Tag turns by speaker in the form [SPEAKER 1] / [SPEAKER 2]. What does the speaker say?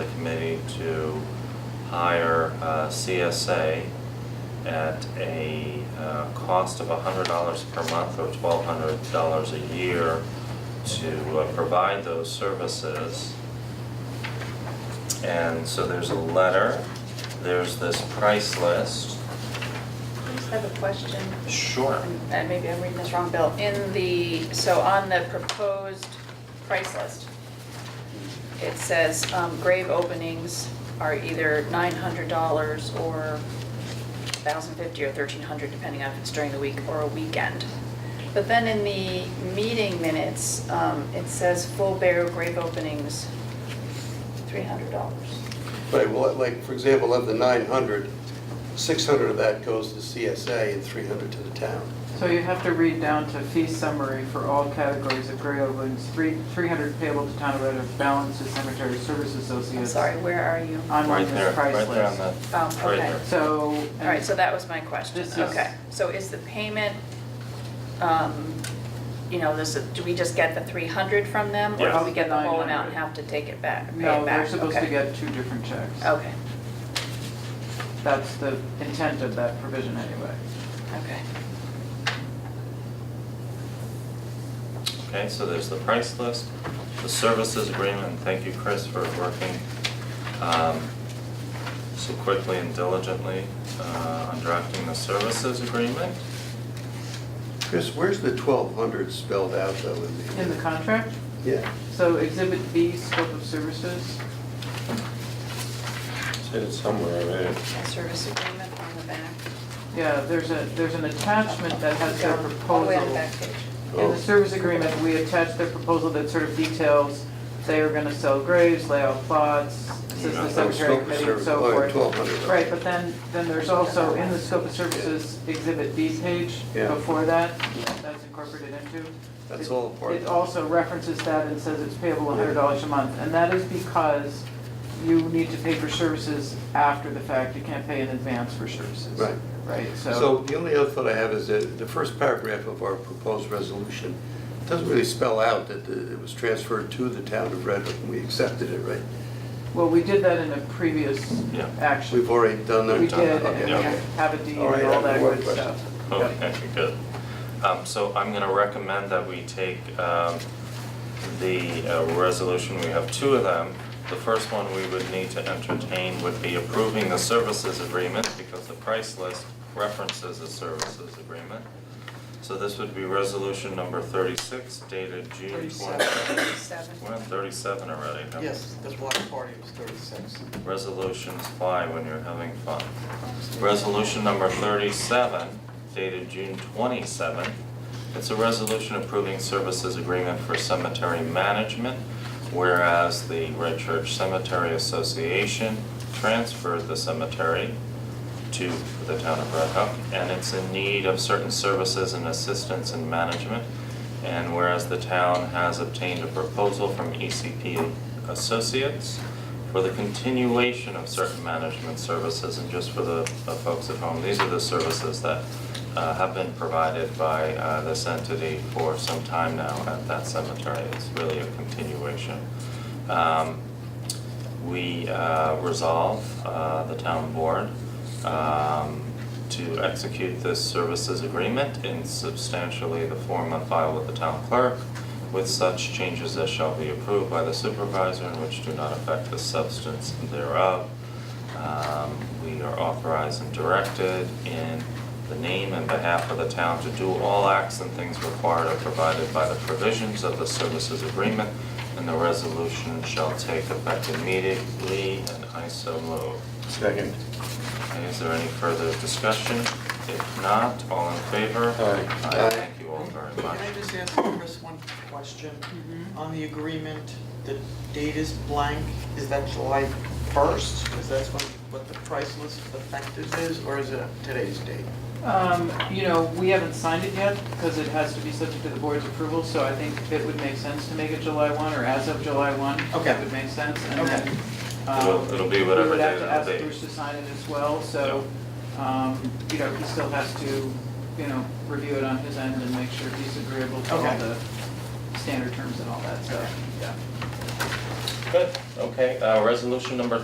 [SPEAKER 1] hire uh, CSA at a uh, cost of $100 per month or $1,200 a year to uh, provide those services. And so there's a letter, there's this price list.
[SPEAKER 2] I just have a question,
[SPEAKER 1] Sure.
[SPEAKER 2] and maybe I'm reading this wrong, Bill. In the, so on the proposed price list, it says um, grave openings are either nine hundred dollars or thousand fifty or thirteen hundred, depending on if it's during the week or a weekend. But then in the meeting minutes, um, it says full burial grave openings, three hundred dollars.
[SPEAKER 3] Right, well, like, for example, of the 900, 600 of that goes to CSA and 300 to the town.
[SPEAKER 4] So you have to read down to fee summary for all categories of gray ovens, three, three hundred payable to town of Red Hook, balance to cemetery service
[SPEAKER 2] I'm
[SPEAKER 4] associates.
[SPEAKER 2] sorry, where are you?
[SPEAKER 4] I'm on
[SPEAKER 1] Right there,
[SPEAKER 4] this
[SPEAKER 1] right
[SPEAKER 4] price
[SPEAKER 1] there on
[SPEAKER 4] list.
[SPEAKER 1] the,
[SPEAKER 2] Oh,
[SPEAKER 1] right
[SPEAKER 2] okay.
[SPEAKER 1] there.
[SPEAKER 4] So.
[SPEAKER 2] All right, so that was my question,
[SPEAKER 4] This is-
[SPEAKER 2] okay. So is the payment, um, you know, this, do we just get the three hundred from them? Or
[SPEAKER 1] Yes.
[SPEAKER 2] do we get the whole amount and
[SPEAKER 4] 900.
[SPEAKER 2] have to take it back, pay it back?
[SPEAKER 4] No, they're supposed to
[SPEAKER 2] Okay.
[SPEAKER 4] get two different checks.
[SPEAKER 2] Okay,
[SPEAKER 4] That's the intent of that provision anyway.
[SPEAKER 2] okay.
[SPEAKER 1] Okay, so there's the price list, the services agreement, thank you, Chris, for working um, so quickly and diligently uh, on drafting the services agreement.
[SPEAKER 3] Chris, where's the 1,200 spelled out, though, in the?
[SPEAKER 4] In the contract,
[SPEAKER 3] Yeah,
[SPEAKER 4] so exhibit B, scope of services,
[SPEAKER 5] It's somewhere already.
[SPEAKER 2] A service agreement on the back.
[SPEAKER 4] yeah, there's a, there's an attachment that has their
[SPEAKER 2] Down,
[SPEAKER 4] proposal.
[SPEAKER 2] All the way on the back page.
[SPEAKER 4] In
[SPEAKER 3] Oh.
[SPEAKER 4] the service agreement, we attach their proposal that sort of details, they are gonna sell graves, lay out plots, assist
[SPEAKER 1] Yeah.
[SPEAKER 4] the cemetery
[SPEAKER 3] Scope of
[SPEAKER 4] committee and
[SPEAKER 3] service,
[SPEAKER 4] so
[SPEAKER 3] oh,
[SPEAKER 4] forth.
[SPEAKER 3] 1,200.
[SPEAKER 4] Right, but then, then there's also in the scope of services exhibit B page
[SPEAKER 3] Yeah.
[SPEAKER 4] before that, that's incorporated into.
[SPEAKER 3] That's
[SPEAKER 4] It-
[SPEAKER 3] all part of
[SPEAKER 4] It
[SPEAKER 3] it.
[SPEAKER 4] also references that and says it's payable hundred dollars a month, and that is because you need to pay for services after the fact, you can't pay in advance for services.
[SPEAKER 3] Right.
[SPEAKER 4] Right, so.
[SPEAKER 3] So the only other thought I have is that the first paragraph of our proposed resolution doesn't really spell out that the- it was transferred to the town of Red Hook, and we accepted it, right?
[SPEAKER 4] Well, we did that in a previous
[SPEAKER 1] Yeah.
[SPEAKER 4] action.
[SPEAKER 3] We've already done that?
[SPEAKER 4] We did,
[SPEAKER 3] Okay.
[SPEAKER 4] and we
[SPEAKER 1] Yeah.
[SPEAKER 4] have a deed
[SPEAKER 3] All right,
[SPEAKER 4] and all that
[SPEAKER 3] one
[SPEAKER 4] good
[SPEAKER 3] question.
[SPEAKER 4] stuff.
[SPEAKER 1] Okay, good. Um, So I'm going to recommend that we take um, the uh, resolution, we have two of them. The first one we would need to entertain would be approving the services agreement because the price list references the services agreement. So this would be resolution number 36 dated June 20.
[SPEAKER 2] Thirty-seven.
[SPEAKER 1] We're on 37 already. huh?
[SPEAKER 6] Yes, that's why the party was thirty-six.
[SPEAKER 1] Resolutions fly when you're having fun. Resolution number 37 dated June 27th. It's a resolution approving services agreement for cemetery management, whereas the Red Church Cemetery Association transferred the cemetery to the town of Red Hook, and it's in need of certain services and assistance in management. And whereas the town has obtained a proposal from ECP Associates for the continuation of certain management services, and just for the the folks at home, these are the services that uh, have been provided by uh, this entity for some time now at that cemetery. It's really a continuation. Um, we uh, resolve, uh, the town board, um, to execute this services agreement in substantially the form on file with the town clerk, with such changes as shall be approved by the supervisor and which do not affect the substance thereof. Um, We are authorized and directed in the name and behalf of the town to do all acts and things required are provided by the provisions of the services agreement, and the resolution shall take effect immediately, and I so move.
[SPEAKER 5] Second.
[SPEAKER 1] Okay, Is there any further discussion? If not, all in favor?
[SPEAKER 5] Aye.
[SPEAKER 3] Aye.
[SPEAKER 1] Thank you all very
[SPEAKER 6] Can
[SPEAKER 1] much.
[SPEAKER 6] I just ask Chris one question?
[SPEAKER 4] Mm-hmm.
[SPEAKER 6] On the agreement, the date is blank, is that July first? Is that when, what the price list effective is, or is it today's date?
[SPEAKER 4] Um, you know, we haven't signed it yet, because it has to be subject to the board's approval, so I think it would make sense to make it July one, or as of July one.
[SPEAKER 6] Okay.
[SPEAKER 4] It would make sense, and
[SPEAKER 6] Okay.
[SPEAKER 4] then,
[SPEAKER 1] It'll-
[SPEAKER 4] um,
[SPEAKER 1] it'll be
[SPEAKER 4] we
[SPEAKER 1] whatever
[SPEAKER 4] would have
[SPEAKER 1] day
[SPEAKER 4] to
[SPEAKER 1] that'll be.
[SPEAKER 4] ask Bruce to sign it as well, so, um, you know, he still has to, you know, review it on his end and make sure he's agreeable to all
[SPEAKER 6] Okay.
[SPEAKER 4] the standard terms and all that, so, yeah.
[SPEAKER 1] Good, okay, uh, resolution number